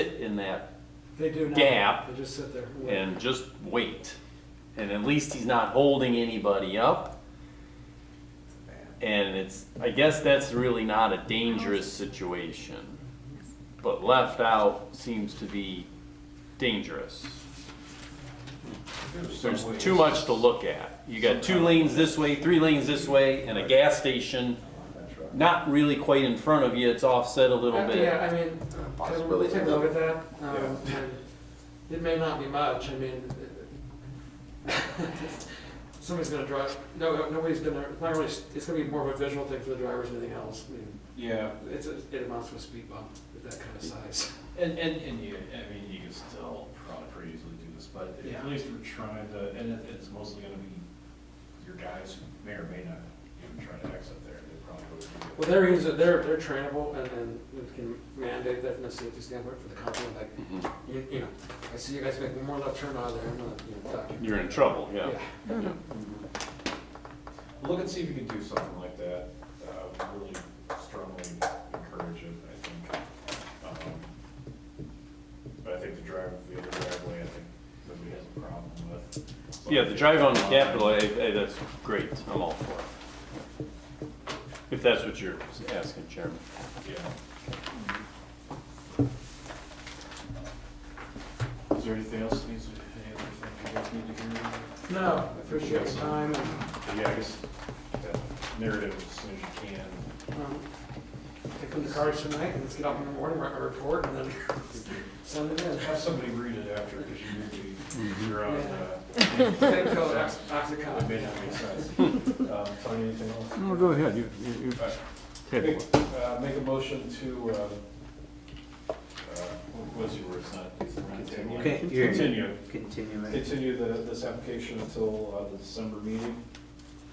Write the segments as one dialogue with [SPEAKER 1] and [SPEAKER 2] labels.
[SPEAKER 1] sit in that
[SPEAKER 2] They do now.
[SPEAKER 1] Gap.
[SPEAKER 2] They just sit there.
[SPEAKER 1] and just wait. And at least he's not holding anybody up. And it's, I guess that's really not a dangerous situation. But left out seems to be dangerous. There's too much to look at. You got two lanes this way, three lanes this way, and a gas station not really quite in front of you, it's offset a little
[SPEAKER 2] Uh, Yeah,
[SPEAKER 1] bit.
[SPEAKER 2] I mean, uh, can we take a look at that? Um, and It may not be much, I mean, it- somebody's gonna drive, no, nobody's gonna, it's not really, it's gonna be more of a visual thing for the drivers than anything else. I mean,
[SPEAKER 3] Yeah,
[SPEAKER 2] it's, a- it amounts to a speed bump with that kind of size.
[SPEAKER 3] and, and, and you, I mean, you can still probably pretty easily do this, but
[SPEAKER 2] Yeah.
[SPEAKER 3] at least we're trying to, and it, it's mostly gonna be your guys who may or may not even try to exit there, they probably would.
[SPEAKER 2] Well, they're using, they're, they're trainable and then we can mandate that from a safety standpoint for the company, like,
[SPEAKER 1] Mhm.
[SPEAKER 2] you, you know, I see you guys making more left turn out of there, I'm gonna, you know, document.
[SPEAKER 1] You're in trouble, yeah.
[SPEAKER 3] Look and see if you can do something like that, uh, really strongly encourage it, I think. Um, But I think the drive, the other driveway, I think nobody has a problem with.
[SPEAKER 1] Yeah, the drive on the Capitol, eh, eh, that's great, I'm all for it. If that's what you're asking, Chairman.
[SPEAKER 3] Yeah. Is there anything else needs, any other thing you guys need to hear?
[SPEAKER 2] No, I appreciate your time and
[SPEAKER 3] Yeah, I guess that narrative as soon as you can.
[SPEAKER 2] Um, Take them to cars tonight, and let's get up in the morning, write my report, and then send it in.
[SPEAKER 3] Have somebody read it after, because you may be, you're on, uh.
[SPEAKER 2] Same color, ox- oxycontin.
[SPEAKER 3] It may not make sense. Um, Tony, anything else?
[SPEAKER 4] No, go ahead, you, you, you
[SPEAKER 3] All right.
[SPEAKER 4] table it.
[SPEAKER 3] Make- uh, Make a motion to, uh, uh, what was your word, it's not, it's not table.
[SPEAKER 5] Okay, you're-
[SPEAKER 3] Continue.
[SPEAKER 5] Continue it.
[SPEAKER 3] Continue the, this application until uh, the December meeting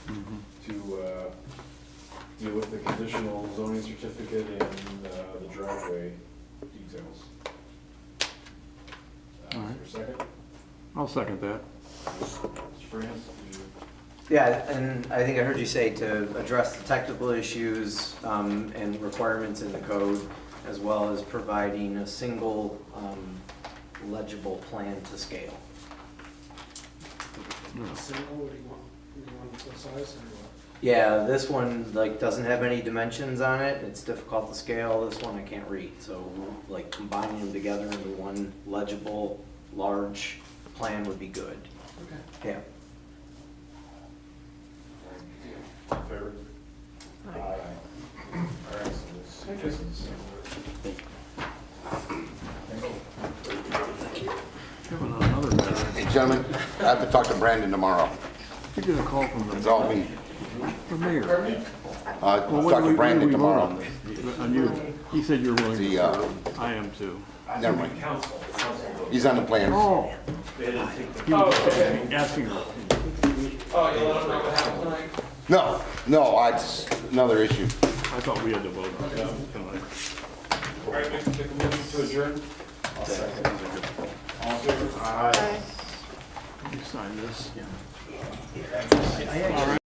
[SPEAKER 4] Mm-hmm.
[SPEAKER 3] to uh, deal with the conditional zoning certificate and uh, the driveway details. Uh,
[SPEAKER 4] Alright.
[SPEAKER 3] Is there a second?
[SPEAKER 4] I'll second that.
[SPEAKER 3] Mr. France? you-
[SPEAKER 5] Yeah, and I think I heard you say to address the technical issues um, and requirements in the code, as well as providing a single um, legible plan to scale.
[SPEAKER 2] Single, what do you want? Do you want the size or
[SPEAKER 5] Yeah, this one, like, doesn't have any dimensions on it, it's difficult to scale, this one I can't read, so, like, combining them together into one legible, large plan would be good.
[SPEAKER 2] what? Okay.
[SPEAKER 5] Yeah.
[SPEAKER 3] All in favor? Aye. All right, so this this is Thank you.
[SPEAKER 4] Kevin, on another matter,
[SPEAKER 6] Hey, gentlemen, I have to talk to Brandon tomorrow.
[SPEAKER 4] you get a call from
[SPEAKER 6] It's
[SPEAKER 4] the,
[SPEAKER 6] all me.
[SPEAKER 4] the mayor.
[SPEAKER 6] Uh,
[SPEAKER 4] Well, what do
[SPEAKER 6] talk
[SPEAKER 4] we-
[SPEAKER 6] to
[SPEAKER 4] what do
[SPEAKER 6] Brandon
[SPEAKER 4] we vote
[SPEAKER 6] tomorrow.
[SPEAKER 4] on this? On you, he said you're willing to
[SPEAKER 6] The, uh,
[SPEAKER 4] serve. I am too.
[SPEAKER 6] never mind.
[SPEAKER 3] Council, council vote.
[SPEAKER 6] He's on the plan.
[SPEAKER 4] Oh,
[SPEAKER 3] They didn't take the-
[SPEAKER 4] he was asking her.
[SPEAKER 2] Oh, you want to know what happened tonight?
[SPEAKER 6] No, no, I, it's another issue.
[SPEAKER 4] I thought we had to vote on it tonight.
[SPEAKER 3] All right, make make a motion to adjourn. I'll second. All in favor? Aye.
[SPEAKER 4] You sign this.